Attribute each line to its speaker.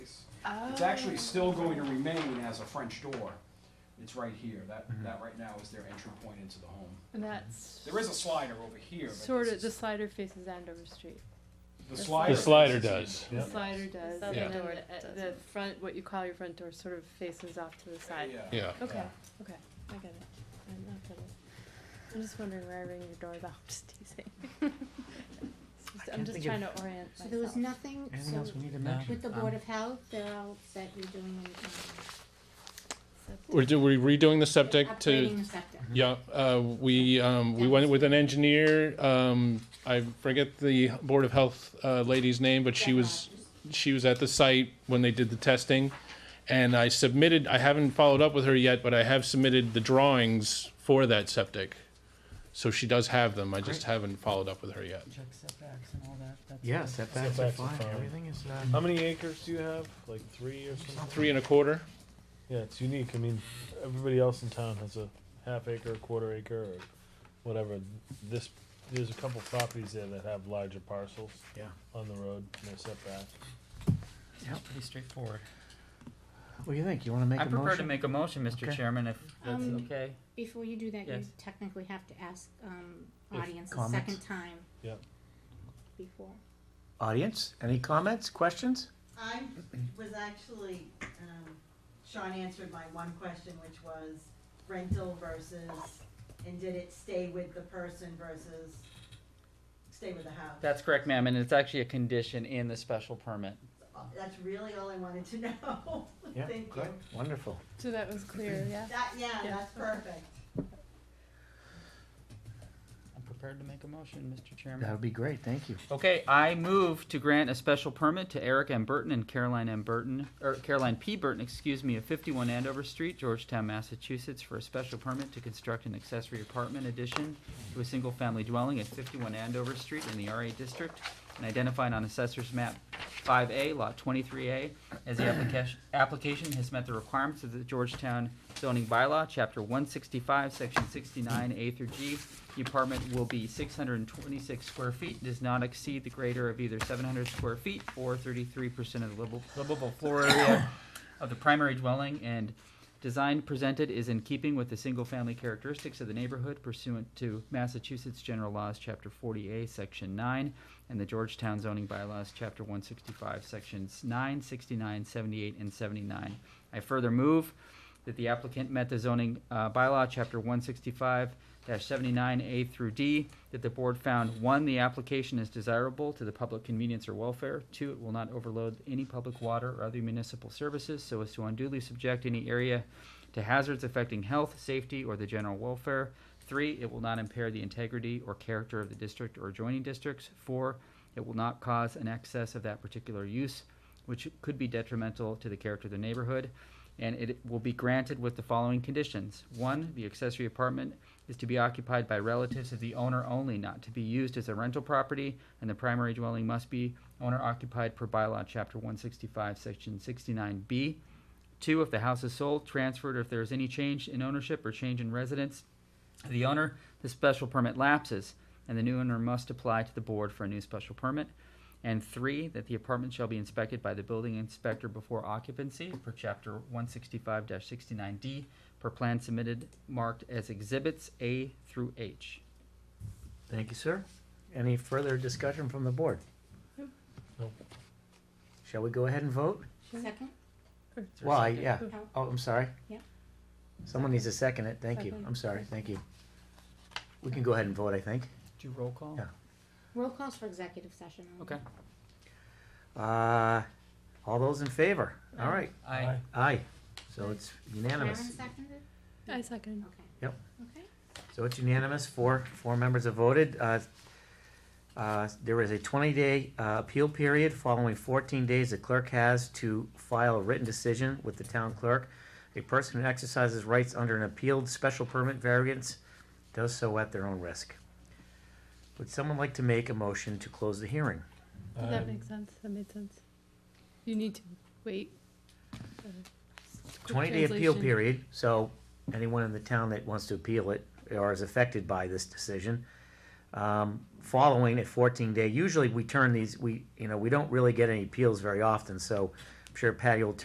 Speaker 1: Oh.
Speaker 2: It's actually still going to remain as a French door. It's right here. That,
Speaker 3: Mm-hmm.
Speaker 2: that right now is their entry point into the home.
Speaker 1: And that's
Speaker 2: There is a slider over here, but
Speaker 1: sort
Speaker 2: this
Speaker 1: of the
Speaker 2: is-
Speaker 1: slider faces Andover Street.
Speaker 2: the
Speaker 1: the
Speaker 2: slider.
Speaker 1: slider. The
Speaker 3: slider
Speaker 2: faces
Speaker 3: does,
Speaker 2: in.
Speaker 3: yeah.
Speaker 1: The slider does,
Speaker 4: The
Speaker 1: and
Speaker 3: Yeah.
Speaker 1: then
Speaker 4: door
Speaker 1: the, uh, the
Speaker 4: doesn't.
Speaker 1: front, what you call your front door, sort of faces off to the side.
Speaker 3: Yeah.
Speaker 1: Okay, okay, I get it. I'm not getting it. I'm just wondering where I ring your doorbell. I'm just teasing. It's just- I'm
Speaker 5: can't
Speaker 1: just
Speaker 5: think of-
Speaker 1: trying to orient
Speaker 5: So there was
Speaker 1: myself.
Speaker 5: nothing,
Speaker 6: Anything
Speaker 5: so
Speaker 6: else we need to
Speaker 3: No.
Speaker 6: mention?
Speaker 5: with the
Speaker 6: Um,
Speaker 5: Board of Health, they're all set, you're doing, um,
Speaker 3: We're, do- we're redoing the septic
Speaker 5: upgrading
Speaker 3: to,
Speaker 5: the septic.
Speaker 3: yeah, uh, we, um, we went with an engineer, um, I forget the Board of Health, uh, lady's name, but she was, she was at the site when they did the testing. And I submitted, I haven't followed up with her yet, but I have submitted the drawings for that septic. So she does have them, I just haven't followed up with her yet.
Speaker 7: Check setbacks and all that, that's.
Speaker 6: Yeah, setbacks are
Speaker 8: Setbacks are
Speaker 6: fine,
Speaker 8: fine.
Speaker 6: everything is,
Speaker 8: How
Speaker 7: Um,
Speaker 6: uh,
Speaker 8: many acres do you have? Like three or something?
Speaker 3: Three and a quarter?
Speaker 8: Yeah, it's unique. I mean, everybody else in town has a half acre, quarter acre, or whatever. This, there's a couple properties there that have larger parcels
Speaker 6: yeah.
Speaker 8: on the road, no setback.
Speaker 6: Yeah.
Speaker 7: Pretty straightforward.
Speaker 6: What do you think, you wanna make
Speaker 7: I
Speaker 6: a
Speaker 7: prefer to
Speaker 6: motion?
Speaker 7: make a motion, Mr.
Speaker 6: Okay.
Speaker 7: Chairman, if that's
Speaker 5: Um,
Speaker 7: okay.
Speaker 5: Before you do that, you
Speaker 7: Yes.
Speaker 5: technically have to ask, um,
Speaker 8: If-
Speaker 5: audience a
Speaker 6: Comments?
Speaker 5: second time.
Speaker 8: Yep.
Speaker 5: Before.
Speaker 6: Audience, any comments, questions?
Speaker 9: I was actually, um, Sean answered my one question, which was rental versus, and did it stay with the person versus stay with the house?
Speaker 7: That's correct, ma'am, and it's actually a condition in the special permit.
Speaker 9: That's really all I wanted to know.
Speaker 6: Yeah,
Speaker 9: Thank you.
Speaker 6: good, wonderful.
Speaker 1: So that was clear, yeah?
Speaker 9: That, yeah,
Speaker 1: Yeah.
Speaker 9: that's perfect.
Speaker 7: I'm prepared to make a motion, Mr. Chairman.
Speaker 6: That would be great, thank you.
Speaker 7: Okay, I move to grant a special permit to Eric M. Burton and Caroline M. Burton, or Caroline P. Burton, excuse me, of fifty-one Andover Street, Georgetown, Massachusetts, for a special permit to construct an accessory apartment addition to a single-family dwelling at fifty-one Andover Street in the RA district, and identified on assessor's map five A, lot twenty-three A, as the application, application has met the requirements of the Georgetown zoning bylaw, chapter one sixty-five, section sixty-nine, A through G. The apartment will be six hundred and twenty-six square feet, does not exceed the greater of either seven hundred square feet or thirty-three percent of the livable, livable floor area of the primary dwelling, and design presented is in keeping with the single-family characteristics of the neighborhood pursuant to Massachusetts General Laws, chapter forty A, section nine, and the Georgetown zoning bylaws, chapter one sixty-five, sections 9, 69, 78, and seventy-nine. I further move that the applicant met the zoning uh, bylaw, chapter one sixty-five seventy-nine A through D, that the board found, one, the application is desirable to the public convenience or welfare, two, it will not overload any public water or other municipal services so as to unduly subject any area to hazards affecting health, safety, or the general welfare, three, it will not impair the integrity or character of the district or adjoining districts, four, it will not cause an excess of that particular use, which could be detrimental to the character of the neighborhood. And it will be granted with the following conditions. One, the accessory apartment is to be occupied by relatives of the owner only, not to be used as a rental property, and the primary dwelling must be owner occupied per bylaw, chapter one sixty-five, section sixty-nine B. Two, if the house is sold, transferred, or if there is any change in ownership or change in residence of the owner, the special permit lapses, and the new owner must apply to the board for a new special permit. And three, that the apartment shall be inspected by the building inspector before occupancy per chapter one sixty-five sixty-nine D per plan submitted marked as exhibits A through H.
Speaker 6: Thank you, sir. Any further discussion from the board?
Speaker 1: Nope.
Speaker 8: Nope.
Speaker 6: Shall we go ahead and vote?
Speaker 1: Sure.
Speaker 5: Second?
Speaker 1: Or-
Speaker 7: Is there a
Speaker 6: Why,
Speaker 7: second?
Speaker 6: yeah,
Speaker 5: No.
Speaker 6: oh, I'm sorry.
Speaker 5: Yeah.
Speaker 6: Someone needs to second it, thank you,
Speaker 1: Second.
Speaker 6: I'm sorry, thank you. We can go ahead and vote, I think.
Speaker 7: Do you roll call?
Speaker 6: Yeah.
Speaker 5: Roll calls for executive session. only.
Speaker 7: Okay.
Speaker 6: Uh, all those in favor? All
Speaker 7: Aye.
Speaker 6: right,
Speaker 7: Aye.
Speaker 6: aye, so it's
Speaker 5: Karen
Speaker 6: unanimous.
Speaker 5: seconded?
Speaker 1: I second.
Speaker 5: Okay.
Speaker 6: Yep.
Speaker 5: Okay.
Speaker 6: So it's unanimous, four, four members have voted. Uh, uh, There is a 20-day uh, appeal period. Following 14 days, the clerk has to file a written decision with the town clerk. A person who exercises rights under an appealed special permit variance does so at their own risk. Would someone like to make a motion to close the hearing?
Speaker 1: Does
Speaker 8: Um,
Speaker 5: Um,
Speaker 1: that make sense? That made sense. You need to wait. uh, quick
Speaker 6: 20-day appeal
Speaker 1: translation.
Speaker 6: period, so anyone in the town that wants to appeal it or is affected by this decision, um, following a 14-day, usually we turn these, we, you know, we don't really get any appeals very often, so sure Patty will